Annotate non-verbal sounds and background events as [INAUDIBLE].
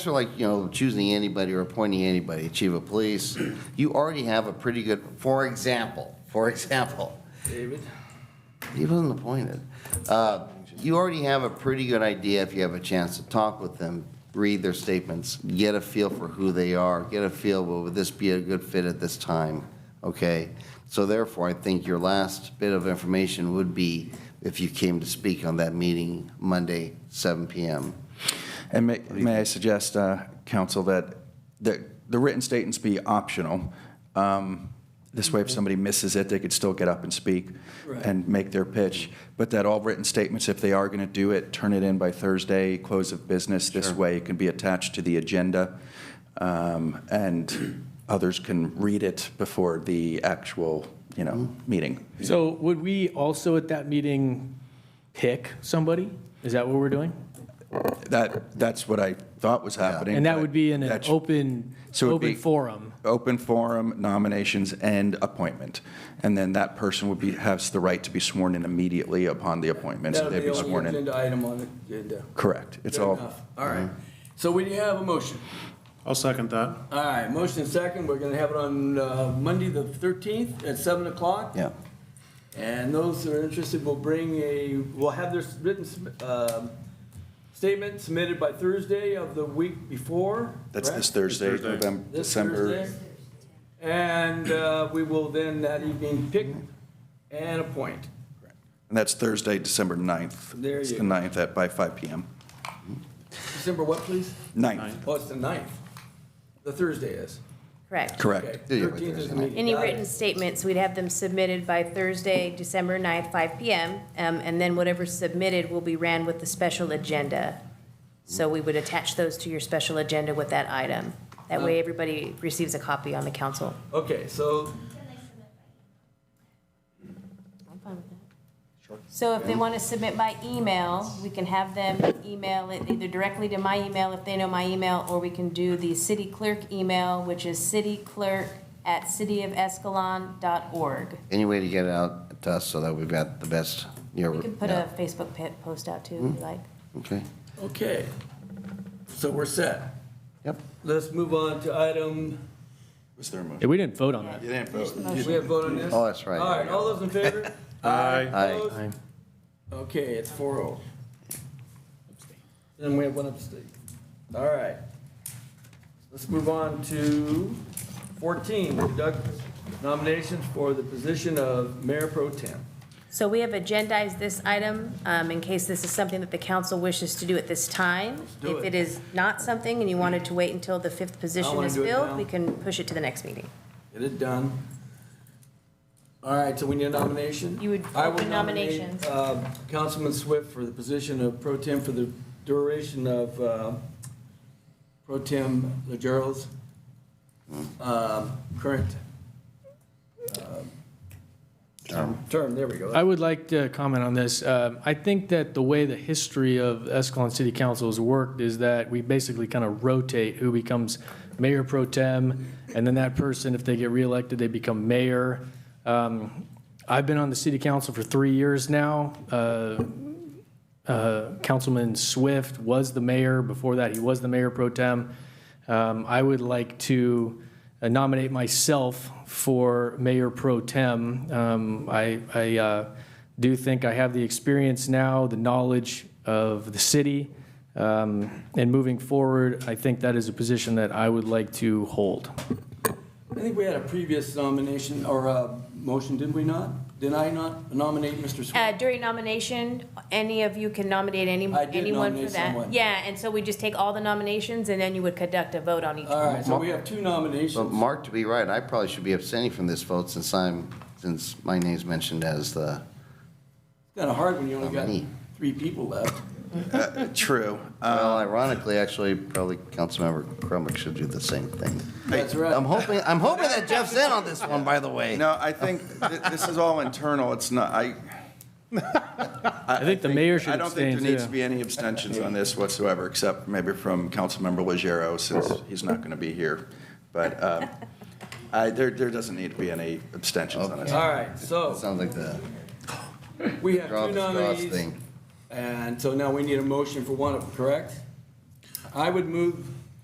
So like, you know, choosing anybody or appointing anybody, chief of police, [CLEARS THROAT] you already have a pretty good, for example, for example, David? he wasn't appointed. Uh, You already have a pretty good idea if you have a chance to talk with them, read their statements, get a feel for who they are, get a feel, well, would this be a good fit at this time? Okay? So therefore, I think your last bit of information would be if you came to speak on that meeting Monday, 7 PM. And may, may I suggest, uh, counsel, that the, the written statements be optional. Um, This Mm-hmm. way, if somebody misses it, they could still get up and speak and make their pitch. But that all written statements, if they are going to do it, turn it in by Thursday, close of business. This way, it can be attached to the agenda, um, and others can read it before the actual, you know, Mm-hmm. meeting. So would we also at that meeting pick somebody? Is that what we're doing? That, that's what I thought was happening. And that but would be in an that's- open, So it'd open be- forum. open forum, nominations, and appointment. And then that person would be, has the right to be sworn in immediately upon the appointment, so That'll be they'd the be only sworn in. agenda item on the agenda. Correct. It's Good all, Mhm. enough. All right. So we have a motion. I'll second that. All right, motion second. We're going to have it on uh, Monday, the 13th at 7 o'clock. Yeah. And those that are interested will bring a, will have their written um, statement submitted by Thursday of the week before. that's this correct? Thursday, Thursday. November, This December. Thursday. And uh, we will then that evening pick and appoint. And that's Thursday, December 9th. There It's you the go. 9th at, by 5 PM. December what, please? 9th, Oh, it's the 9th. The Thursday is. Correct. correct. Yeah, yeah, Thirteenth is Thursday. the meeting. Any Got it. written statements, we'd have them submitted by Thursday, December 9th, 5 PM, um, and then whatever's submitted will be ran with the special agenda. So we would attach those to your special agenda with that item. That way, everybody receives a copy on the council. Okay, so, I'm fine with that. So if they want to submit by email, we can have them email it either directly to my email if they know my email, or we can do the city clerk email, which is cityclerk@cityofescalon.org. Any way to get it out to us so that we've got the best, you know. We can put yeah. a Facebook pa- post out too, Hmm? if you like. Okay, okay. So we're set. yep. Let's move on to item, Was there a motion? Yeah, we didn't vote on that. we have vote on this? Oh, that's right. All right, all those in favor? Aye. [LAUGHS] Aye. Opposed? Aye. Okay, it's four oh. Then we have one abstain. All right. Let's move on to fourteen, conduct nominations for the position of mayor pro tem. So we have agendized this item um, in case this is something that the council wishes to do at this time. do If it. it is not something and you wanted to wait until the fifth position wanna is do it now. filled, we can push it to the next meeting. Get it done. All right, so we need a nomination? You would I will open nominate, nominations. uh, Councilman Swift for the position of pro tem for the duration of uh, pro tem Legero's Hmm. um, current um, term, there we go. I would like to comment on this. Um, I think that the way the history of Escalon City Council has worked is that we basically kind of rotate who becomes mayor pro tem, and then that person, if they get reelected, they become mayor. Um, I've been on the city council for three years now. Uh, uh, Councilman Swift was the mayor. Before that, he was the mayor pro tem. Um, I would like to uh, nominate myself for mayor pro tem. Um, I, I uh, do think I have the experience now, the knowledge of the city. Um, and moving forward, I think that is a position that I would like to hold. I think we had a previous nomination or a motion, did we not? Did I not nominate Mr. Swift? Uh, During nomination, any of you can nominate any I did anyone for nominate someone. that. Yeah, and so we just take all the nominations and then you would conduct a vote on each. All right, so we have two But nominations. Mark, to be right, I probably should be abstaining from this vote since I'm, since my name's mentioned as the, Kind of hard when you only got Nominee. three people left. True. well, Um, ironically, actually, probably Councilmember Crumack should do the same thing. That's right. I'm hoping, I'm hoping that Jeff's in on this one, by the way. No, I think th- this is all internal. It's not, I, I think the mayor should I don't think abstain there needs to too. be any abstentions on this whatsoever, except maybe from Councilmember Legero, since he's not going to be here. But um, I- there, there doesn't need to be any abstentions on this. All right, so. Sounds like the We have draw two the straws nominees, thing. and so now we need a motion for one of them, correct? I would move